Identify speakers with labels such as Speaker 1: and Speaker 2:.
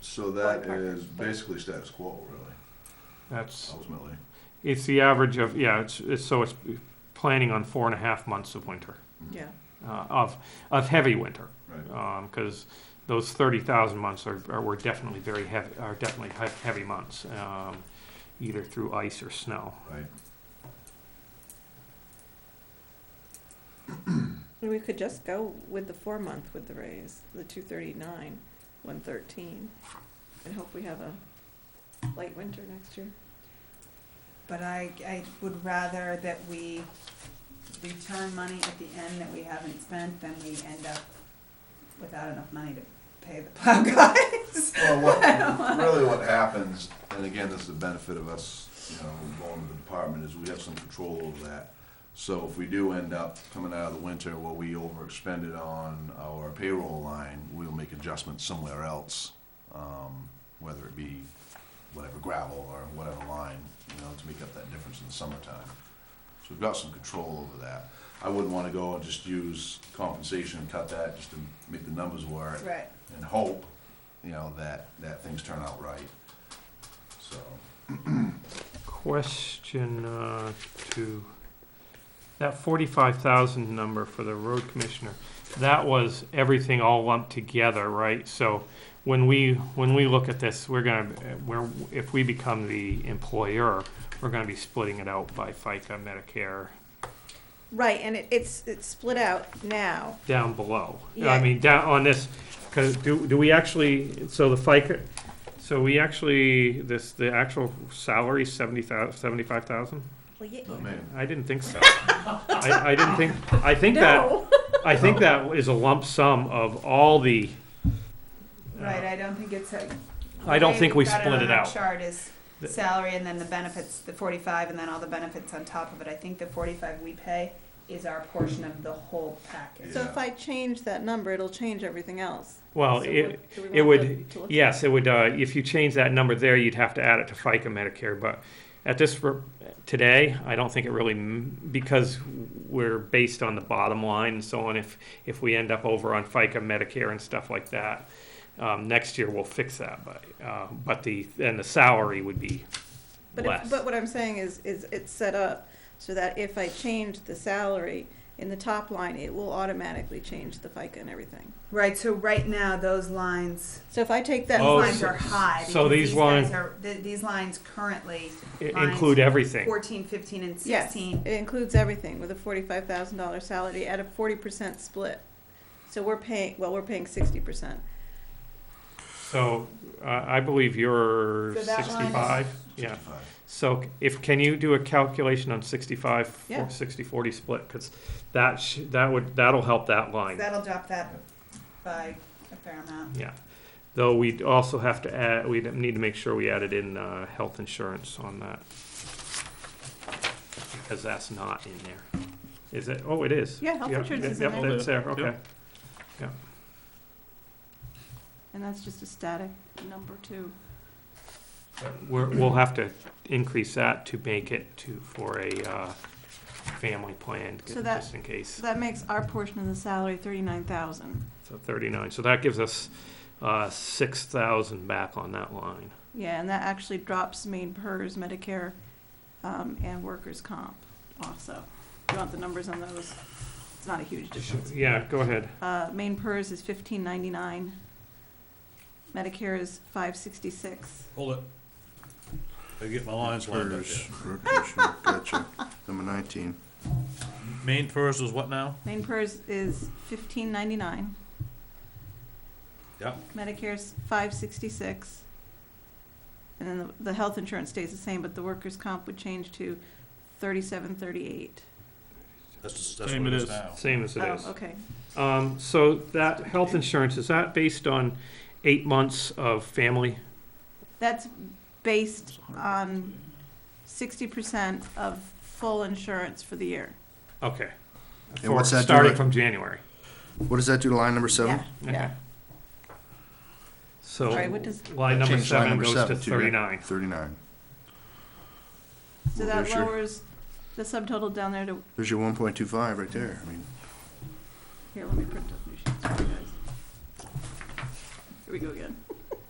Speaker 1: So that
Speaker 2: Ballpark.
Speaker 1: is basically status quo, really,
Speaker 3: That's,
Speaker 1: ultimately.
Speaker 3: it's the average of, yeah, it's, it's, so it's planning on four and a half months of winter,
Speaker 2: Yeah.
Speaker 3: uh, of, of heavy winter.
Speaker 1: Right.
Speaker 3: Um 'cause cause those thirty thousand months are, are, were definitely very heavy, are definitely he- heavy months, um, either through ice or snow.
Speaker 1: Right.
Speaker 2: And we could just go with the four month with the raise, the two thirty nine, one thirteen, and hope we have a light winter next year.
Speaker 4: But I, I would rather that we return money at the end that we haven't spent than we end up without enough money to pay the plow guys.
Speaker 1: Well, what, really what happens, and again, this is the benefit of us, you know, going to the department, is we have some control over that. So if we do end up coming out of the winter where we overexpended on our payroll line, we'll make adjustments somewhere else. Um, whether it be whatever gravel or whatever line, you know, to make up that difference in the summertime. So we've got some control over that. I wouldn't wanna go and just use compensation and cut that just to make the numbers work
Speaker 4: Right,
Speaker 1: and hope, you know, that, that things turn out right. So,
Speaker 3: Question uh, to, that forty-five thousand number for the road commissioner, that was everything all lumped together, right? So when we, when we look at this, we're gonna, we're, if we become the employer, we're gonna be splitting it out by FICA, Medicare,
Speaker 2: Right, and it, it's, it's split out now.
Speaker 3: down below. I
Speaker 2: Yeah.
Speaker 3: mean, down on this, because do, do we actually, so the FICA, so we actually, this, the actual salary, seventy thou, seventy-five thousand?
Speaker 2: Well, yeah.
Speaker 1: I mean,
Speaker 3: I didn't think so. I, I didn't think, I think that,
Speaker 2: No,
Speaker 3: I think that is a lump sum of all the,
Speaker 4: right, I don't think it's a.
Speaker 3: I don't
Speaker 4: the way
Speaker 3: think we
Speaker 4: we've got
Speaker 3: split
Speaker 4: on
Speaker 3: it
Speaker 4: our
Speaker 3: out.
Speaker 4: Chart is
Speaker 3: The-
Speaker 4: salary and then the benefits, the forty-five and then all the benefits on top of it. I think the forty-five we pay is our portion of the whole package.
Speaker 2: So if I change that number, it'll change everything else.
Speaker 3: well,
Speaker 2: So
Speaker 3: it,
Speaker 2: what do we
Speaker 3: it
Speaker 2: want
Speaker 3: would,
Speaker 2: to- to look at?
Speaker 3: yes, it would, uh, if you change that number there, you'd have to add it to FICA Medicare, but at this, r- today, I don't think it really, m- because we're based on the bottom line and so on, if, if we end up over on FICA Medicare and stuff like that, um, next year we'll fix that, but, uh, but the, and the salary would be
Speaker 2: But
Speaker 3: less.
Speaker 2: if, but what I'm saying is, is it's set up so that if I change the salary in the top line, it will automatically change the FICA and everything.
Speaker 4: Right, so right now, those lines,
Speaker 2: So if I take that
Speaker 4: these
Speaker 3: Oh,
Speaker 4: lines
Speaker 3: so-
Speaker 4: are high.
Speaker 3: so
Speaker 4: because
Speaker 3: these
Speaker 4: guys
Speaker 3: line-
Speaker 4: are- th- These lines currently
Speaker 3: I-
Speaker 4: lines
Speaker 3: Include everything.
Speaker 4: 14, 15, and
Speaker 2: Yes,
Speaker 4: 16.
Speaker 2: it includes everything with a forty-five thousand dollar salary at a forty percent split. So we're paying, well, we're paying sixty percent.
Speaker 3: So, uh, I believe you're
Speaker 4: So that line is-
Speaker 3: sixty-fic, yeah.
Speaker 1: sixty-five.
Speaker 3: So if, can you do a calculation on sixty-five,
Speaker 2: Yeah.
Speaker 3: for sixty-forty split? Cause that sh- that would, that'll help that line,
Speaker 4: That'll drop that by a fair amount.
Speaker 3: yeah. Though we'd also have to add, we'd need to make sure we added in, uh, health insurance on that. Because that's not in there. Is it? Oh, it is.
Speaker 2: Yeah, health
Speaker 3: Yeah,
Speaker 2: insurance is
Speaker 3: yeah,
Speaker 2: in
Speaker 3: yeah,
Speaker 2: there,
Speaker 3: that's there, okay.
Speaker 2: and that's just a static number too.
Speaker 3: We're, we'll have to increase that to make it to, for a, uh, family plan,
Speaker 2: So that-
Speaker 3: just in case.
Speaker 2: So that makes our portion of the salary thirty-nine thousand.
Speaker 3: So thirty-nine, so that gives us, uh, six thousand back on that line.
Speaker 2: Yeah, and that actually drops main PERS, Medicare, um, and workers' comp also. Do you want the numbers on those? It's not a huge difference.
Speaker 3: Yeah, go ahead.
Speaker 2: Uh, main PERS is fifteen ninety-nine. Medicare is five sixty-six.
Speaker 5: Hold it. I get my lines lined up
Speaker 1: Hers,
Speaker 5: yet.
Speaker 1: road commissioner, gotcha. Number nineteen.
Speaker 5: Main first was what now?
Speaker 2: Main PERS is fifteen ninety-nine.
Speaker 5: Yep.
Speaker 2: Medicare's five sixty-six. And then the, the health insurance stays the same, but the workers' comp would change to thirty-seven thirty-eight.
Speaker 5: That's, that's
Speaker 6: Same
Speaker 5: what it
Speaker 6: it
Speaker 5: is
Speaker 6: is.
Speaker 5: now.
Speaker 3: Same as it
Speaker 2: Oh,
Speaker 3: is.
Speaker 2: okay.
Speaker 3: Um, so that health insurance, is that based on eight months of family?
Speaker 2: That's based on sixty percent of full insurance for the year.
Speaker 3: Okay.
Speaker 6: And what's
Speaker 3: For-
Speaker 6: that do
Speaker 3: Starting
Speaker 6: to-
Speaker 3: from January.
Speaker 6: What does that do to line number seven?
Speaker 2: Yeah, yeah.
Speaker 3: Okay. So,
Speaker 2: Sorry, what does-
Speaker 3: line number
Speaker 6: Change line
Speaker 3: seven
Speaker 6: number
Speaker 3: goes to
Speaker 6: seven to, yeah.
Speaker 3: thirty-nine.
Speaker 6: Thirty-nine.
Speaker 2: So
Speaker 6: Well,
Speaker 2: that
Speaker 6: there's your-
Speaker 2: lowers the subtotal down there to,
Speaker 6: There's your one point two five right there. I mean,
Speaker 2: here, let me print up new sheets for you guys. Here we go again.